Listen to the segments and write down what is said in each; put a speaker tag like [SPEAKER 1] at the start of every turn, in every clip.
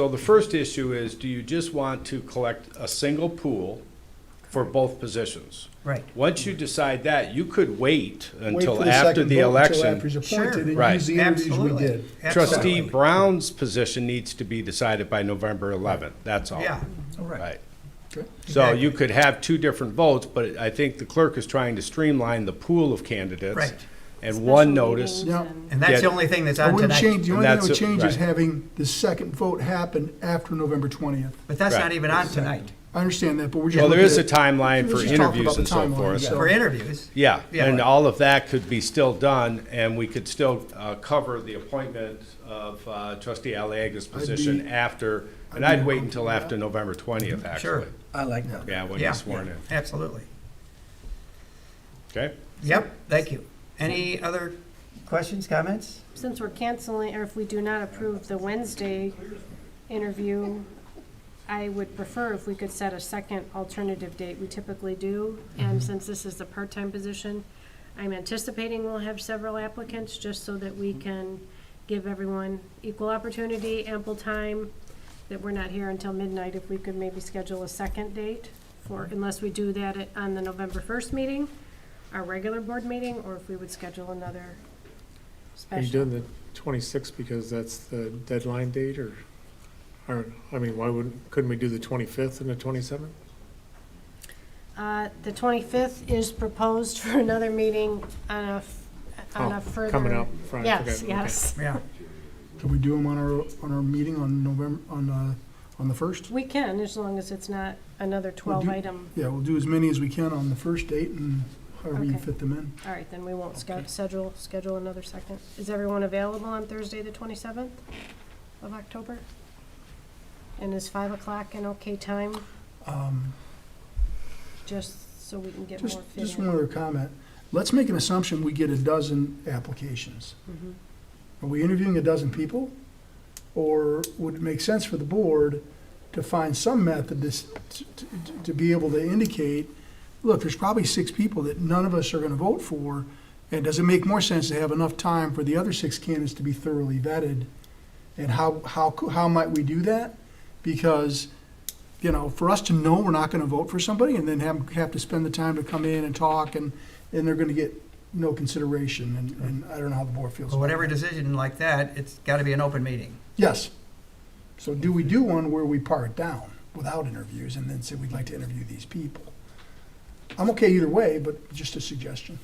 [SPEAKER 1] So the first issue is, do you just want to collect a single pool for both positions?
[SPEAKER 2] Right.
[SPEAKER 1] Once you decide that, you could wait
[SPEAKER 3] Wait for
[SPEAKER 1] until after
[SPEAKER 3] second
[SPEAKER 1] the
[SPEAKER 3] vote, until after
[SPEAKER 1] election.
[SPEAKER 3] he's appointed, and
[SPEAKER 1] Right.
[SPEAKER 3] use the interviews we
[SPEAKER 2] Absolutely.
[SPEAKER 3] did.
[SPEAKER 1] Trustee
[SPEAKER 2] Absolutely.
[SPEAKER 1] Brown's position needs to be decided by November 11th, that's all.
[SPEAKER 2] Yeah,
[SPEAKER 1] Right.
[SPEAKER 3] Okay.
[SPEAKER 1] So you could have two different votes, but I think the clerk is trying to streamline the pool of candidates.
[SPEAKER 2] Right.
[SPEAKER 1] And one notice,
[SPEAKER 3] Yeah.
[SPEAKER 2] and that's the
[SPEAKER 1] Yeah.
[SPEAKER 2] only thing that's
[SPEAKER 3] I
[SPEAKER 2] on
[SPEAKER 3] wouldn't
[SPEAKER 2] tonight.
[SPEAKER 3] change, the only thing I would
[SPEAKER 1] That's it,
[SPEAKER 3] change is
[SPEAKER 1] right.
[SPEAKER 3] having the second vote happen after November 20th.
[SPEAKER 2] But that's
[SPEAKER 1] Right.
[SPEAKER 2] not even on tonight.
[SPEAKER 3] I understand that, but we're just.
[SPEAKER 1] well, there is
[SPEAKER 3] looking
[SPEAKER 1] a
[SPEAKER 3] at-
[SPEAKER 1] timeline for
[SPEAKER 3] Let's just talk about
[SPEAKER 1] interviews
[SPEAKER 3] the
[SPEAKER 1] and so
[SPEAKER 3] timeline,
[SPEAKER 1] forth.
[SPEAKER 3] yeah.
[SPEAKER 2] For interviews,
[SPEAKER 1] Yeah,
[SPEAKER 2] Yeah.
[SPEAKER 1] and all of that could be still done, and we could still uh, cover the appointment of uh, trustee Aliaga's position after, and I'd wait until after November 20th,
[SPEAKER 2] sure,
[SPEAKER 1] actually.
[SPEAKER 4] I like that.
[SPEAKER 1] Yeah, when
[SPEAKER 2] yeah,
[SPEAKER 1] he's sworn in,
[SPEAKER 2] absolutely.
[SPEAKER 1] okay?
[SPEAKER 2] Yep, thank you. Any other questions, comments?
[SPEAKER 5] since we're canceling, or if we do not approve the Wednesday interview, I would prefer if we could set a second alternative date. We typically do.
[SPEAKER 6] Mm-hmm.
[SPEAKER 5] And since this is a part-time position, I'm anticipating we'll have several applicants, just so that we can give everyone equal opportunity, ample time, that we're not here until midnight, if we could maybe schedule a second date for,
[SPEAKER 6] Mm-hmm.
[SPEAKER 5] unless we do that at- on the November first meeting, our regular board meeting, or if we would schedule another
[SPEAKER 6] Are
[SPEAKER 5] special.
[SPEAKER 6] you doing the twenty-sixth because that's the deadline date or, or, I mean, why wouldn't, couldn't we do the twenty-fifth and the twenty-seventh?
[SPEAKER 5] Uh, The 25th is proposed for another meeting on a, f- on a further.
[SPEAKER 6] Oh, Coming up Friday.
[SPEAKER 5] Yes,
[SPEAKER 6] okay, okay.
[SPEAKER 5] yes.
[SPEAKER 2] Yeah,
[SPEAKER 3] Can we do them on our, on our meeting on November, on, uh, on the 1st?
[SPEAKER 5] We can, as long as it's not another 12-item.
[SPEAKER 3] Yeah, we'll do as many as we can on the first date and however you
[SPEAKER 5] Okay.
[SPEAKER 3] fit them in.
[SPEAKER 5] All right, then we won't sca- schedule, schedule another second. Is everyone available on Thursday, the 27th of October? And is 5 o'clock an okay time,
[SPEAKER 3] Um,
[SPEAKER 5] just so we can get
[SPEAKER 3] Just,
[SPEAKER 5] more fit
[SPEAKER 3] just
[SPEAKER 5] in?
[SPEAKER 3] one other comment. Let's make an assumption we get a dozen applications.
[SPEAKER 5] Mhm.
[SPEAKER 3] Are we interviewing a dozen people? Or would it make sense for the board to find some method to, s- to- to- to be able to indicate, look, there's probably six people that none of us are gonna vote for, and does it make more sense to have enough time for the other six candidates to be thoroughly vetted? And how, how, cou- how might we do that? Because, you know, for us to know we're not gonna vote for somebody and then have, have to spend the time to come in and talk, and, and they're gonna get no consideration, and, and I don't know how the board feels.
[SPEAKER 2] so
[SPEAKER 3] about that.
[SPEAKER 2] whatever decision like that, it's gotta be an open meeting.
[SPEAKER 3] Yes. So do we do one where we par it down without interviews and then say we'd like to interview these people? I'm okay either way, but just a suggestion.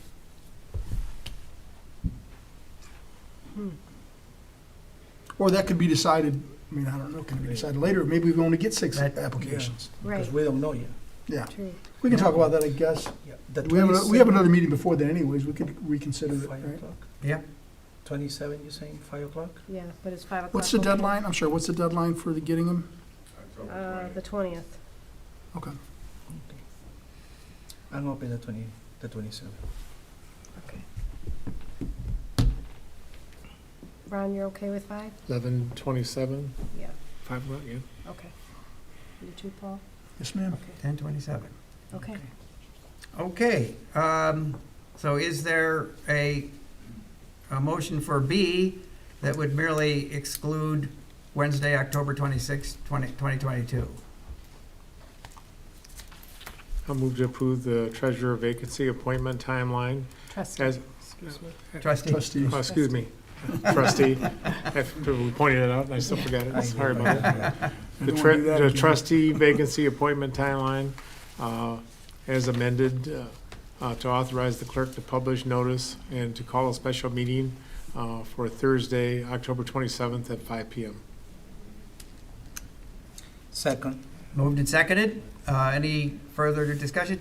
[SPEAKER 3] Or that could be decided, I mean, I don't know, can it be decided later? Maybe we only get six
[SPEAKER 2] That-
[SPEAKER 3] applications.
[SPEAKER 5] Right,
[SPEAKER 4] Because we don't know yet.
[SPEAKER 3] Yeah,
[SPEAKER 5] true.
[SPEAKER 3] we can talk about that, I guess.
[SPEAKER 4] The
[SPEAKER 3] We have, a- we have
[SPEAKER 4] 27th,
[SPEAKER 3] another meeting before then anyways, we could reconsider it,
[SPEAKER 4] Five
[SPEAKER 3] right?
[SPEAKER 4] o'clock?
[SPEAKER 2] Yeah.
[SPEAKER 4] Twenty-seven, you're saying, five o'clock?
[SPEAKER 5] Yeah, but it's 5 o'clock.
[SPEAKER 3] What's the
[SPEAKER 5] okay?
[SPEAKER 3] deadline? I'm sorry, what's the deadline for the getting them?
[SPEAKER 5] Uh, The 20th.
[SPEAKER 3] Okay.
[SPEAKER 4] I'm open the twenty, the twenty-seven.
[SPEAKER 5] Ron, you're okay with 5?
[SPEAKER 6] Eleven, twenty-seven,
[SPEAKER 5] Yeah,
[SPEAKER 6] five o'clock, yeah.
[SPEAKER 5] okay. You too, Paul?
[SPEAKER 3] Yes, ma'am.
[SPEAKER 2] Ten twenty-seven.
[SPEAKER 5] Okay.
[SPEAKER 2] Okay, um, so is there a, a motion for B that would merely exclude Wednesday, October twenty-sixth, twenty, twenty twenty-two?
[SPEAKER 6] I'll move to approve the treasurer vacancy appointment timeline
[SPEAKER 5] Trustee,
[SPEAKER 6] as,
[SPEAKER 5] excuse me.
[SPEAKER 2] Trustee,
[SPEAKER 3] Trustees.
[SPEAKER 6] oh, excuse me, trustee. I we pointed it out and I still forgot it, sorry about that. The
[SPEAKER 3] Don't
[SPEAKER 6] tre-
[SPEAKER 3] do that
[SPEAKER 6] the
[SPEAKER 3] again.
[SPEAKER 6] trustee vacancy appointment timeline, uh, as amended, uh, uh, to authorize the clerk to publish notice and to call a special meeting, uh, for Thursday, October twenty-seventh at five PM.
[SPEAKER 4] Second.
[SPEAKER 2] moved and seconded. Uh, any further discussion?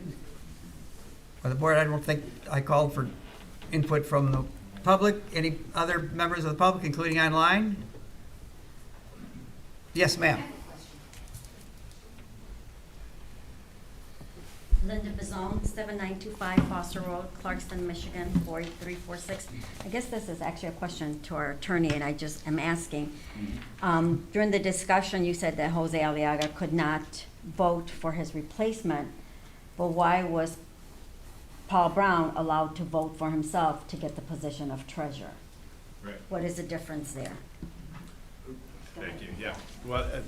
[SPEAKER 2] By the board, I don't think I called for input from the public. Any other members of the public, including online? Yes, ma'am.
[SPEAKER 7] Linda Bazone, 7925 Foster Road, Clarkston, Michigan, 48346. I guess this is actually a question to our attorney, and I just am asking. Um, During the discussion, you said that Jose Aliaga could not vote for his replacement, but why was Paul Brown allowed to vote for himself to get the position of treasurer?
[SPEAKER 1] Right.
[SPEAKER 7] What is the difference there?
[SPEAKER 1] Thank you, yeah. Well, uh,